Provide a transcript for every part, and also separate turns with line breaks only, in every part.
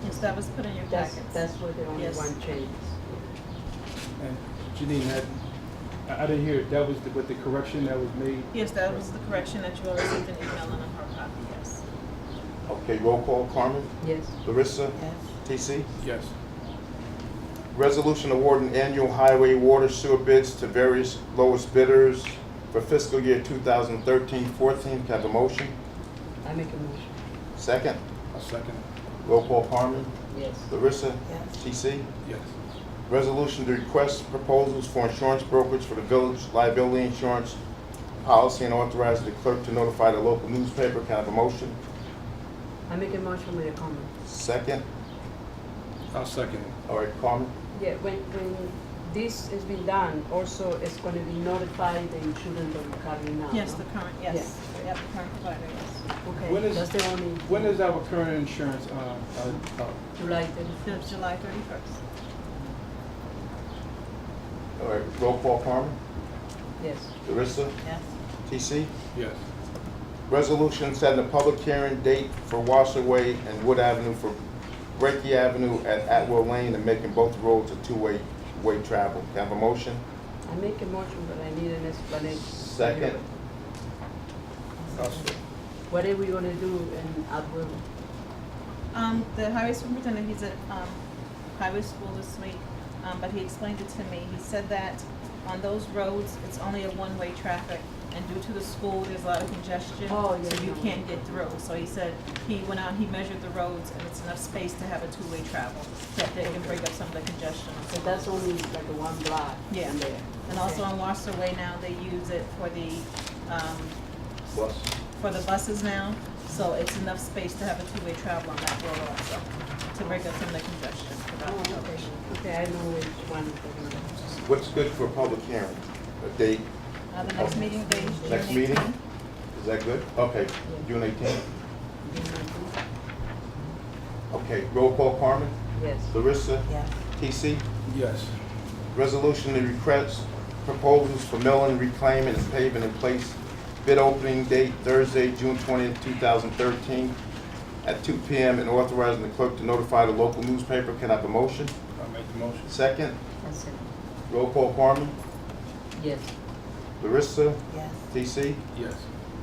changes, that was put in your
That's,
packets.
that's where the only
Yes.
one change
And Janine, that, I, I didn't hear, that was the- with the correction that was made?
Yes, that was the correction that you all received an email and a hard copy, yes.
Okay, roll call, Carmen,
Yes.
Larissa,
Yes.
TC.
Yes.
Resolution awarding annual highway water sewer bids to various lowest bidders for fiscal year 2013-14. Can I have a motion?
I make a motion.
Second.
A second.
Roll call, Carmen,
Yes.
Larissa,
Yes.
TC.
Yes.
Resolution to request proposals for insurance brokerage for the village liability insurance policy and authorize the clerk to notify the local newspaper. Can I have a motion?
I make a motion with a comment.
Second.
A second.
All right, Carmen?
Yeah, when, when this has been done, also it's gonna be notified the insurance that we're having now.
Yes,
no?
the current, yes, we have the current provider, yes.
When
Okay,
is-
that's the only.
When is our current insurance, um, uh, uh,
July thirty
That was July thirty-first.
All right, roll call, Carmen,
yes.
Larissa,
Yes.
TC.
yes.
Resolution setting a public hearing date for Washaway and Wood Avenue for Breaky Avenue at Atwell Lane and making both roads a two-way, way travel. Can I have a motion?
I make a motion, but I need an explanation.
Second. I'll second.
What are we gonna do in Atwell?
Um, the highway superintendent, he's at, um, highway school this week, um, but he explained it to me. He said that on those roads, it's only a one-way traffic, and due to the school, there's a lot of congestion.
Oh, yeah,
So you
yeah.
can't get through. So he said, he went out, he measured the roads, and it's enough space to have a two-way travel, that they can break up some of the congestion.
So that's only like a one block
Yeah.
in there.
And also on Washer Way now, they use it for the, um,
Plus.
for the buses now, so it's enough space to have a two-way travel on that road also, to break up some of the congestion. for
Oh,
that
okay,
road.
okay, I know which one. we're gonna do.
What's good for a public hearing? A date,
Uh, the next meeting, they.
next
June
meeting?
18th.
Is that good? Okay, June eighteenth. Okay, roll call, Carmen,
Yes.
Larissa,
Yes.
TC.
Yes.
Resolution to request proposals for milling, reclaiming, and paving in place. Bid opening date Thursday, June twentieth, two thousand thirteen, at two P M. And authorizing the clerk to notify the local newspaper. Can I have a motion?
I make the motion.
Second,
That's it.
roll call Carmen,
Yes.
Larissa,
Yes.
T.C.
Yes.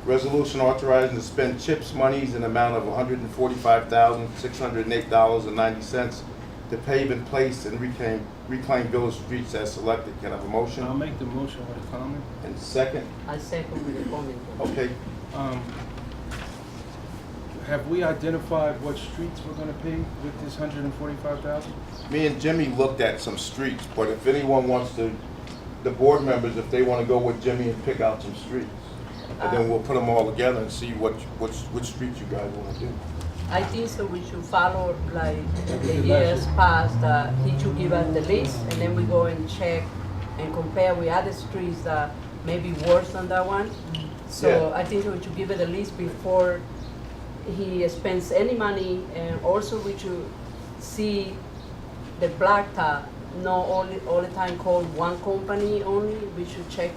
Resolution authorizing to spend CHIPS monies in amount of one hundred and forty-five thousand, six hundred and eight dollars and ninety cents to pave in place and reclaim, reclaim village streets as selected. Can I have a
I'll
motion?
make the motion with a comment.
And second,
I second with a comment.
okay,
Um, have we identified what streets we're gonna pave with this hundred and forty-five thousand?
Me and Jimmy looked at some streets, but if anyone wants to, the board members, if they wanna go with Jimmy and pick out some streets, and then we'll put them all together and see what, which, which streets you guys wanna do.
I think so we should follow like the
did last
years
year.
past, uh, he should give us the list and then we go and check and compare with other streets that may be worse than that one. So
Yeah.
I think we should give it a list before he spends any money and also we should see the blacktop, not only, all the time call one company only, we should check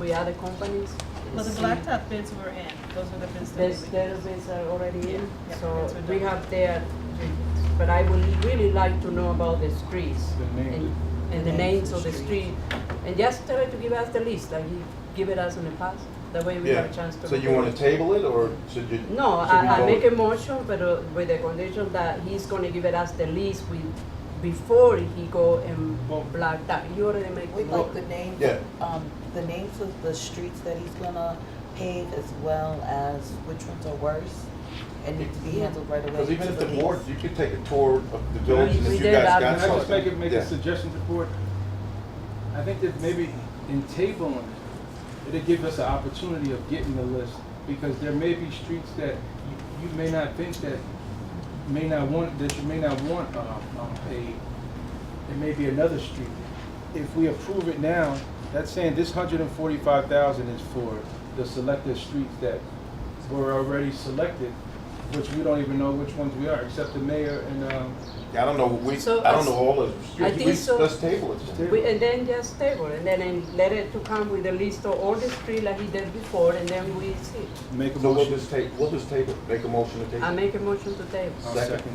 with other companies. and
Well, the
see.
blacktop bids were in, those were the bids that
There's
they would.
database are already in,
Yeah,
so
that's what
we
that-
have there, but I would really like to know about the streets.
The names.
and- And the names of the street, and just tell it to give us the list, like you give it us in the past, that way we have a
Yeah,
chance to.
so you wanna table it, or should you?
No,
should we
I, I
vote?
make a motion, but uh, with the condition that he's gonna give it us the list with, before he go and
Well-
block that, you already make.
We'd like the names,
Yeah.
um, the names of the streets that he's gonna pave as well as which ones are worse and need to be handled right away.
Cause even
to
if the
release.
board, you could take a tour of the village, and
We- we
if you
did
guys
that.
got
Can I just
something.
make, a- make
Yeah.
a suggestion to the board? I think that maybe in tabling, it, it'd give us an opportunity of getting the list, because there may be streets that you- you may not think that, may not want, that you may not want, uh, um, paved. It may be another street. If we approve it now, that's saying this hundred and forty-five thousand is for the selected streets that were already selected, which we don't even know which ones we are, except the mayor and, um,
Yeah, I don't know, we,
So
I don't
I-
know all the
I
streets,
think
We-
so-
let's table it. then.
We, and then just table, and then and let it to come with a list of all the street like he did before, and then we see.
Make a
So we'll
motion.
just ta, we'll just table, it. make a motion to table.
I
it.
make a motion to table.
I'll
Second.
second.